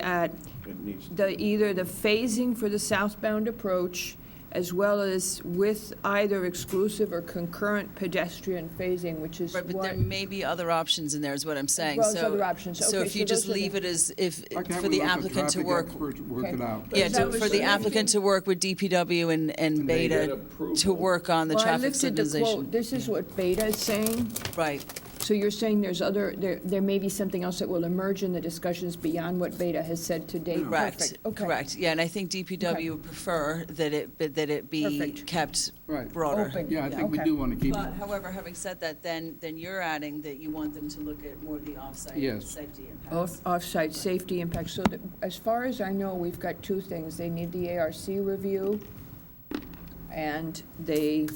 at It needs, the, either the phasing for the southbound approach, as well as with either exclusive or concurrent pedestrian phasing, which is Right, but what, there may be other options in there, is what I'm saying. well as So- other options. So Okay, if so you just those are the- leave it as, if, Why can't for we the let applicant to traffic work, experts Work Okay. it out. yeah, That to- was for the the- applicant to work with DPW and, and they get Beta to approval. work on the Well, I traffic lifted the quote, signalization. this is what Beta is saying, Right, so you're saying there's other, there, there may be something else that will emerge in the discussions beyond what Beta has said to date. correct, Perfect. Okay. correct. Yeah, and I think DPW would prefer that it, but that it be Perfect. kept Right. broader. Open. Yeah, I think we Okay. do want to keep, But however, having said that, then, then you're adding that you want them to look at more of the off-site Yes. safety impacts. Off- Off-site safety impact, so that, as far as I know, we've got two things, they need the ARC review, and they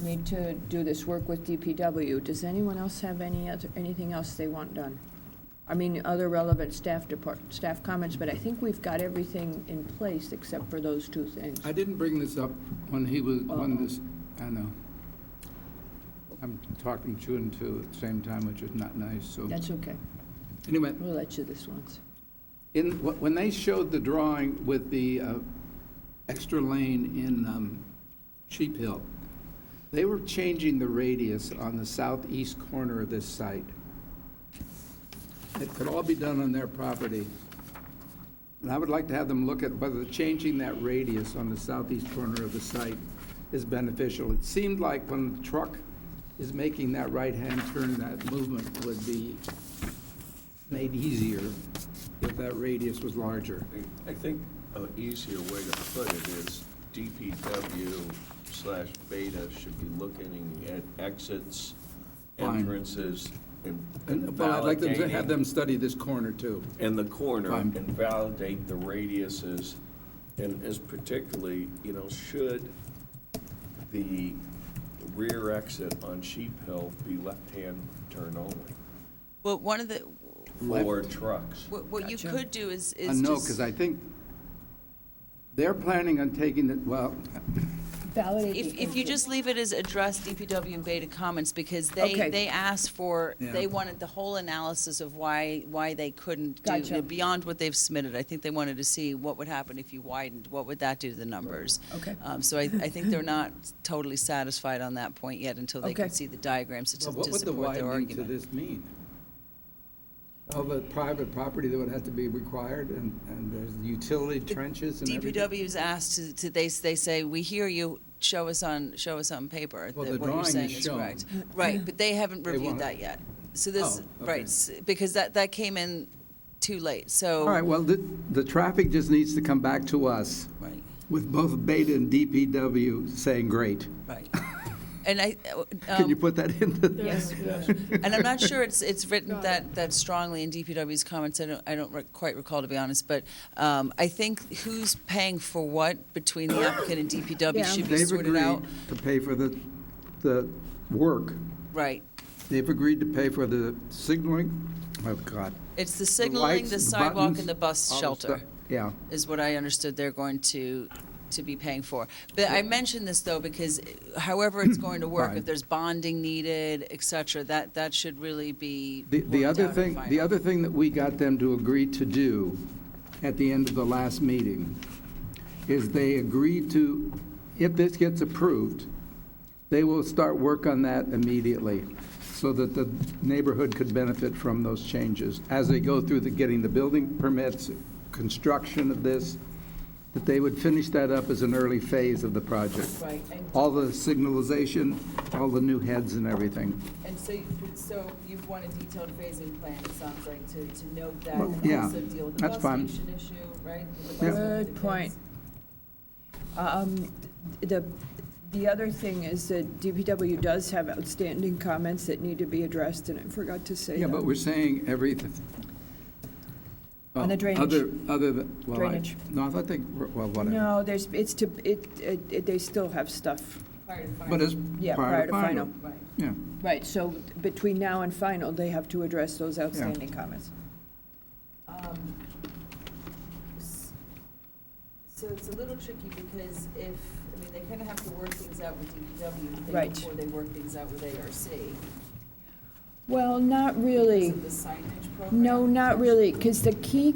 need to do this work with DPW. Does anyone else have any other, anything else they want done? I mean, other relevant staff depart, staff comments, but I think we've got everything in place except for those two things. I didn't bring this up when he was, when this, I know. I'm talking two and two at the same time, which is not nice, so. That's okay, Anyway, we'll let you this once. in, wh- when they showed the drawing with the uh, extra lane in um, Sheep Hill, they were changing the radius on the southeast corner of this site. It could all be done on their property. And I would like to have them look at whether changing that radius on the southeast corner of the site is beneficial. It seemed like when the truck is making that right-hand turn, that movement would be made easier if that radius was larger. I think an easier way to put it is DPW slash Beta should be looking at exits, Fine. entrances, and And, but I'd like them to have validating- them study this corner too. in the corner Fine. and validate the radiuses, and is particularly, you know, should the rear exit on Sheep Hill be left-hand turn only Well, one of the, for trucks? what, what you Gotcha. could do is, I is know, just. because I think they're planning on taking it, well, Validate. If, the if you input. just leave it as address DPW and Beta comments, because they, Okay. they asked for, they Yeah. wanted the whole analysis of why, why they couldn't do, you Gotcha. know, beyond what they've submitted. I think they wanted to see what would happen if you widened, what would that do to the numbers? Okay. Um, So I, I think they're not totally satisfied on that point yet until they can Okay. see the diagrams to what to would the support their widening to argument. this mean? Of a private property that would have to be required, and, and there's utility trenches and everything? DPW is asked to, to, they, they say, we hear you, show us on, show us on paper Well, that the what you're drawing is saying is correct. Right, but they haven't They reviewed want that it. yet. So this, Oh, right, okay. s- because that, that came in too late, All so. right, well, the, the traffic just needs to come back to us Right, with both Beta and DPW saying, great. right. And I, uh, Can you um, put that into the? Yes, yes. and I'm not sure it's, it's written that, that strongly in DPW's comments, I don't, I don't re- quite recall, to be honest, but um, I think who's paying for what between the applicant and DPW Yeah. should be They've sorted out. agreed to pay for the, the work. Right, They've agreed to pay for the signaling, oh, God. it's the signaling, lights, the the sidewalk, buttons, and the bus all the shelter. stuff. Yeah. is what I understood they're going to, to be paying for. But I mention this, though, because however it's going to work, Fine. if there's bonding needed, et cetera, that, that should really be The, the worked other out and thing, the final. other thing that we got them to agree to do at the end of the last meeting is they agreed to, if this gets approved, they will start work on that immediately so that the neighborhood could benefit from those changes as they go through the, getting the building permits, construction of this, that they would finish that up as an early phase of the project. Right, and- All the signalization, all the new heads and everything. And so, you- so you want a detailed phasing plan, it sounds like, to, to note that Well, and yeah, also deal with the that's fine. bus station issue, right? With the Yeah. bus with the Good point. kids. Um, The, the other thing is that DPW does have outstanding comments that need to be addressed, and I forgot to say that. Yeah, but we're saying everything. On the drainage. Other, other than, well, I, Drainage. no, I thought they, were- well, whatever. No, there's, it's to, it, it- they still have stuff, Prior to But final, it's yeah, prior to final. right. Yeah, Right, so between now and final, they have to address those outstanding comments. Um, s- So it's a little tricky because if, I mean, they kind of have to work things out with DPW I think, Right. before they work things out with ARC. Well, not because really, of the signage program. no, not really, because the key